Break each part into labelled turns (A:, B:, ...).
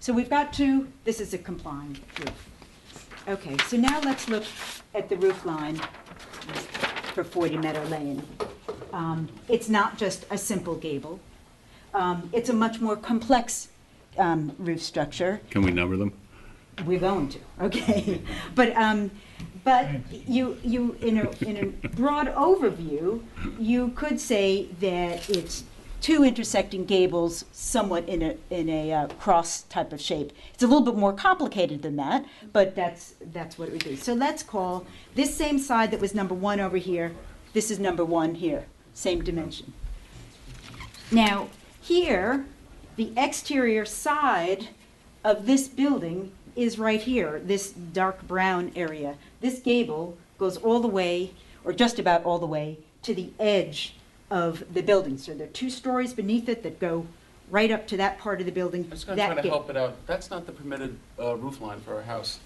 A: So we've got two, this is a complying roof. Okay, so now let's look at the roof line for 40 Meadow Lane. Um, It's not just a simple gable. Um, It's a much more complex um, roof structure.
B: Can we number them?
A: We're going to, okay? But, um, but you, you, in a, in a broad overview, you could say that it's two intersecting gables somewhat in a, in a uh, cross type of shape. It's a little bit more complicated than that, but that's, that's what it would be. So let's call this same side that was number one over here, this is number one here, same dimension. Now, here, the exterior side of this building is right here, this dark brown area. This gable goes all the way, or just about all the way, to the edge of the building. So there are two stories beneath it that go right up to that part of the building.
C: I'm just gonna
A: that
C: try to
A: gate.
C: help it out. That's not the permitted uh, roof line for our house.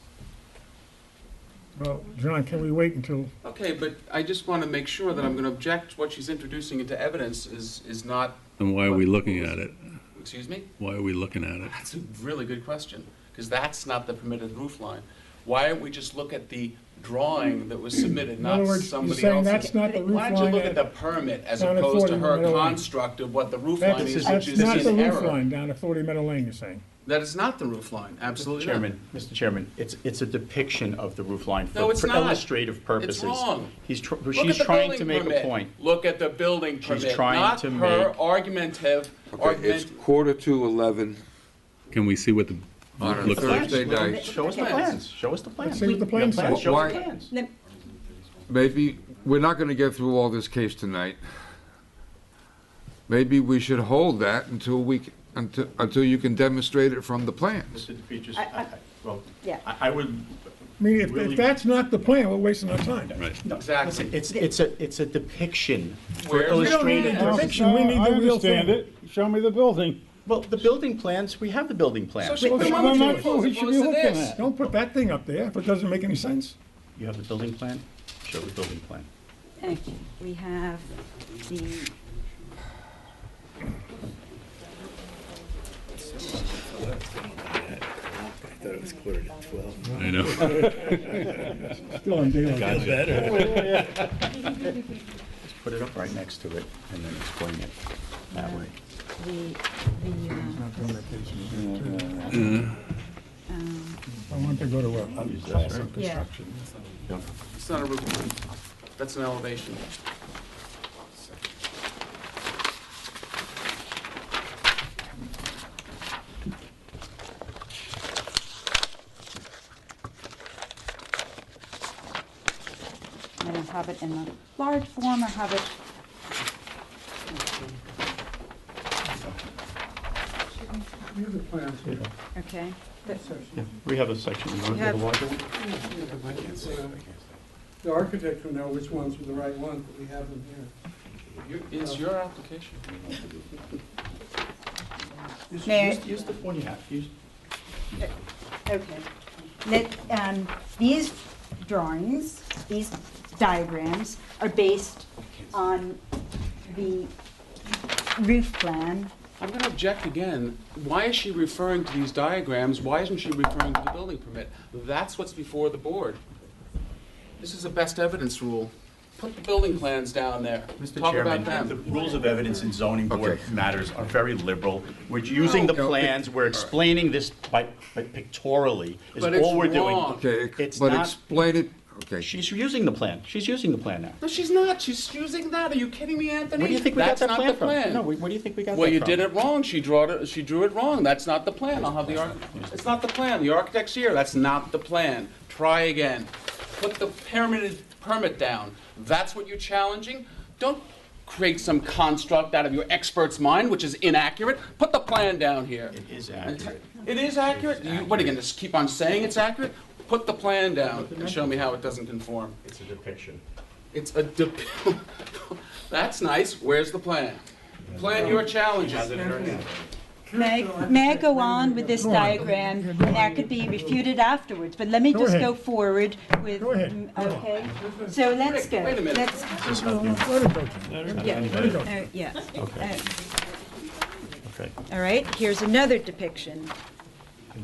D: Well, John, can we wait until,
C: Okay, but I just want to make sure that I'm going to object, what she's introducing into evidence is, is not,
B: And why are we looking at it?
C: excuse me?
B: Why are we looking at it?
C: That's a really good question, because that's not the permitted roof line. Why don't we just look at the drawing that was submitted,
D: in other
C: not
D: words, you're
C: somebody
D: saying
C: else's?
D: that's not the roof
C: Why don't you look at
D: line?
C: the permit as
D: down at
C: opposed
D: 40
C: to
D: in the
C: her
D: middle.
C: construct of what the roof line
D: That's,
C: is,
D: that's
C: which is in error?
D: not the roof line down at Forty Meadow Lane, you're saying?
C: That is not the roof line, absolutely not.
E: Chairman, Mr. Chairman, it's, it's a depiction of the roof line
C: No,
E: for
C: it's not.
E: illustrative purposes.
C: wrong.
E: He's, tr-
C: Look
E: she's
C: at the
E: trying
C: building
E: to make a
C: permit.
E: point.
C: Look at the building permit.
E: trying
C: not
E: to
C: her
E: make-
C: argumentative
F: Okay, it's
C: argument.
F: quarter to 11
B: Can we see what the
F: on a
B: looks like?
F: Thursday night.
E: Show us the
A: Okay.
E: plans, show us the plans.
D: see what the
E: You
D: plans
E: have
D: say.
E: Show us the
F: Why-
E: plans.
A: Let-
F: Maybe, we're not going to get through all this case tonight. Maybe we should hold that until we, c- until, until you can demonstrate it from the plans.
E: Mr. DePietris,
A: I- I-
E: I- I- well,
A: yeah.
E: I I would,
D: I mean, if,
E: Really?
D: if that's not the plan, we're wasting our time.
B: Right.
E: no,
C: Exactly.
E: listen, it's, it's a, it's a depiction for
C: Where's the- We don't need
E: illustrative.
C: a
D: No,
E: purposes.
D: fiction, we need the real thing.
G: I understand it. Show me the building.
E: Well, the building plans, we have the building
C: So
E: plans.
C: she-
D: Well,
C: then why
D: no,
C: would
D: no,
C: you
D: no,
C: propose
G: we
C: it?
G: should
C: Well, it's
G: be
C: this.
G: looking at.
D: Don't put that thing up there if it doesn't make any sense.
E: You have the building plan? Show the building plan.
A: Okay, we have the.
B: I know.
D: Still on daylight.
E: Just put it up right next to it and then explain it that way.
A: The, the, uh, um,
D: I want to go to a a
E: Use this,
D: class
E: right?
D: of construction.
C: It's not a roof line. That's an elevation.
A: I don't have it in the large form, I have it. Okay, but
E: Yeah, We have a section. You wanna
A: We
E: do the
A: have-
E: larger one?
H: The architect will know which ones were the right ones, but we have them here.
C: You- It's your application.
E: Use-
A: May I-
E: Use use the one you have. Use-
A: Okay. Let, um, these drawings, these diagrams are based on the roof plan.
C: I'm going to object again. Why is she referring to these diagrams? Why isn't she referring to the building permit? That's what's before the board. This is a best evidence rule. Put the building plans down there.
E: Mr.
C: Talk about
E: Chairman, the
C: them.
E: rules of evidence in zoning board
F: Okay.
E: matters are very liberal. We're using the
F: No, no, it-
E: plans, we're explaining this by by pictorially, is
C: But it's
E: all we're doing.
C: wrong.
F: Okay,
E: It's
F: but
E: not-
F: explain it, okay.
E: She's using the plan, she's using the plan now.
C: No, she's not. She's using that. Are you kidding me, Anthony?
E: Where do you think we got
C: That's
E: that
C: not
E: plan
C: the
E: from?
C: plan.
E: No, where where do you think we got that from?
C: Well, you did it wrong. She drew it, she drew it wrong. That's not the plan. I'll have the arch, it's not the plan. The architect's here. That's not the plan. Try again. Put the permitted permit down. That's what you're challenging? Don't create some construct out of your expert's mind, which is inaccurate. Put the plan down here.
E: It is accurate.
C: It is accurate? You- What, are you gonna just keep on saying it's accurate? Put the plan down and show me how it doesn't conform.
E: It's a depiction.
C: It's a dep- That's nice. Where's the plan? Plan your challenges.
A: May, I- may I go on with this diagram? And that could be refuted afterwards, but let me
D: Go
A: just
D: ahead.
A: go forward with. mm,
D: Go ahead. Go on.
A: Okay, so let's go.
C: Wait a minute.
A: Let's-
D: Let it go, John.
A: Yeah, uh, yeah.
E: Okay.
A: Uh,
E: Okay.
A: All right, here's another depiction